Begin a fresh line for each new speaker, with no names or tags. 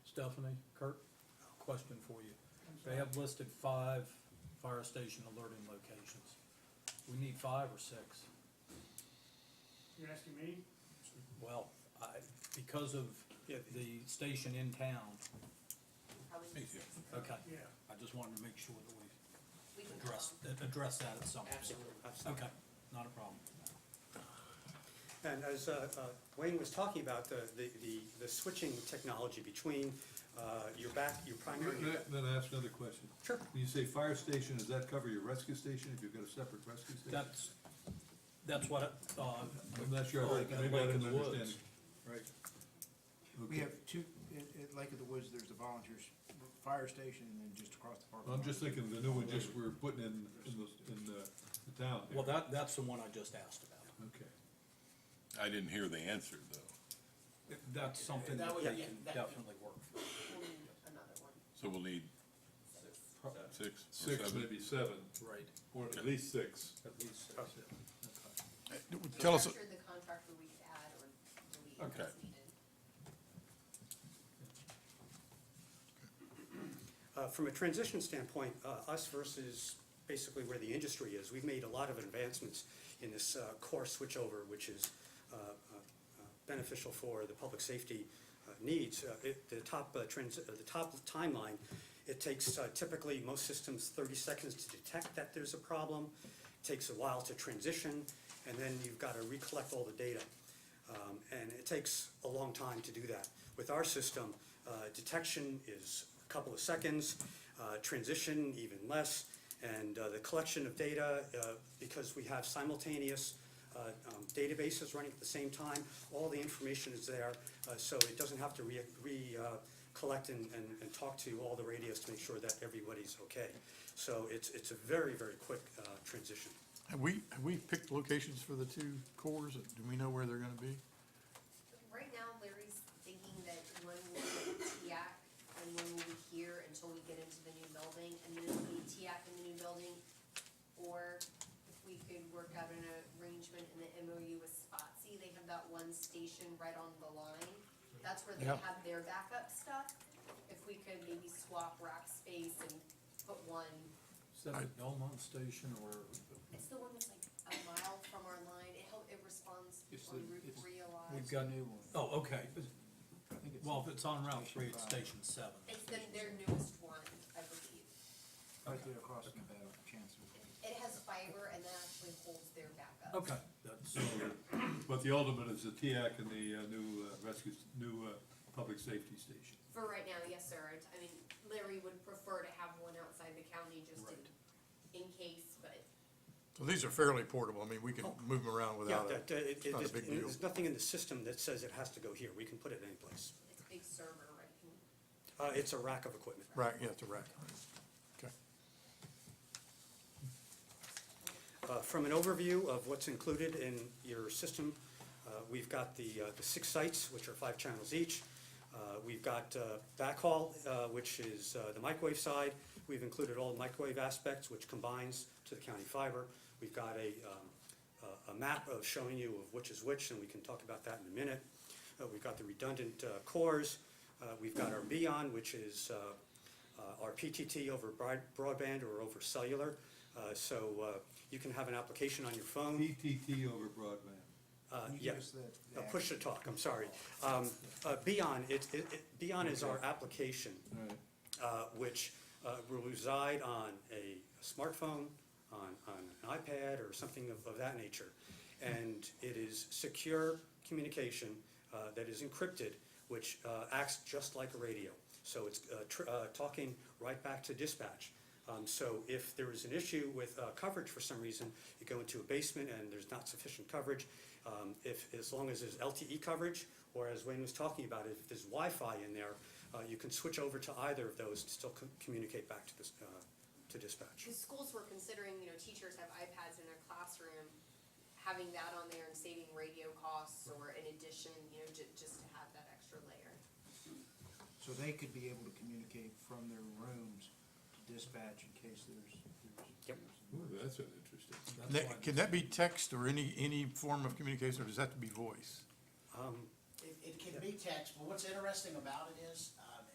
Stephanie, Kurt, question for you. They have listed five fire station alerting locations. We need five or six?
You're asking me?
Well, I, because of the station in town,
I would
Me
just-
too.
okay,
Yeah.
I just wanted to make sure that we
we can
address,
call.
address that at some point.
Absolutely.
Okay, not a problem.
And as uh, uh, Wayne was talking about, the, the, the- the switching technology between uh, your back, your primary.
Then then I ask another question.
Sure.
When you say fire station, does that cover your rescue station, if you've got a separate rescue station?
That's, that's what, it, uh,
I'm not sure, I-
Like-
maybe
like
I
in
didn't
the woods.
understand. Right. Okay,
We have two, at, at Lake of the Woods, there's the volunteers, fire station, and then just across the park.
I'm just thinking the new one just we're putting in, in the, in the the town. here.
well, that, that's the one I just asked about.
Okay.
I didn't hear the answer, though.
That's something
That
that
would-
they
yeah,
can
that-
definitely work.
We'll need another one.
So we'll need
Pro-
six or
Six,
seven?
maybe seven,
Right.
or at least six.
At least six, yeah.
Okay.
Tell us,
After the contract, we could add or delete
Okay.
as needed.
Uh, From a transition standpoint, uh, us versus basically where the industry is, we've made a lot of advancements in this uh, core switchover, which is uh, uh, uh, beneficial for the public safety uh, needs. Uh, it- The top uh, trans, uh, the top timeline, it takes uh, typically most systems thirty seconds to detect that there's a problem, takes a while to transition, and then you've got to recollect all the data. Um, And it takes a long time to do that. With our system, uh, detection is a couple of seconds, uh, transition even less, and uh, the collection of data, uh, because we have simultaneous uh, um, databases running at the same time, all the information is there, uh, so it doesn't have to re, re, uh, collect and, and, and talk to all the radios to make sure that everybody's okay. So it's, it's a very, very quick uh, transition.
Have we, have we picked locations for the two cores? Do we know where they're gonna be?
Right now, Larry's thinking that one will be TIAC and one will be here until we get into the new building, and then it'll be TIAC in the new building. Or if we could work out an arrangement in the MOU with Spotsy, they have that one station right on the line. That's where they
Yeah.
have their backup stuff. If we could maybe swap rack space and put one
Is that at Belmont Station or,
It's the one that's like a mile from our line, it help, it responds
It's
on
the-
Route
it's-
three a
Uh,
We've
lot.
got new one.
oh, okay.
I think it's-
Well, if it's on Route Three, it's
Station
Station Seven.
It's the, their newest one, I believe.
Right there across from Battle Chancery.
It has fiber and that actually holds their backup.
Okay, that's,
But the ultimate is the TIAC and the uh, new uh, rescue, s- new uh, public safety station.
For right now, yes, sir, It's- I mean, Larry would prefer to have one outside the county just in, in case, but
So these are fairly portable, I mean, we can move them around
Yeah,
without
that,
it.
uh, it, it,
not a
there's
big deal.
there's nothing in the system that says it has to go here, we can put it any place.
it's a big server, right?
Uh, it's a rack of equipment.
Right, yeah, it's a rack. Okay.
Uh, From an overview of what's included in your system, uh, we've got the, uh, the six sites, which are five channels each. Uh, We've got uh, backhaul, uh, which is uh, the microwave side. We've included all microwave aspects, which combines to the county fiber. We've got a, um, a- a map of showing you of which is which, and we can talk about that in a minute. Uh, We've got the redundant uh, cores. Uh, We've got our Beyond, which is uh, uh, our PTT over broad- broadband or over cellular. Uh, So uh, you can have an application on your phone.
PTT over broadband.
Uh,
Can you
yeah.
give us the- the
Uh, Push to talk, I'm sorry. Um, uh, Beyond, it, it, it- Beyond is our application,
All right.
uh, which uh, will reside on a smartphone, on, on an iPad or something of, of that nature. And it is secure communication uh, that is encrypted, which uh, acts just like a radio. So it's uh, tr- uh, talking right back to dispatch. Um, So if there is an issue with uh, coverage for some reason, you go into a basement and there's not sufficient coverage, um, if, as long as there's LTE coverage, or as Wayne was talking about, if there's Wi-Fi in there, uh, you can switch over to either of those to still co- communicate back to this, uh, to dispatch.
Because schools were considering, you know, teachers have iPads in their classroom, having that on there and saving radio costs or in addition, you know, ju- just to have that extra layer.
So they could be able to communicate from their rooms to dispatch in case there's, there's.
Yep.
Ooh, that's an interesting.
Can that- Can that be text or any, any form of communication, or does that have to be voice?
Um,
It, it can be text, but what's interesting about it is, uh,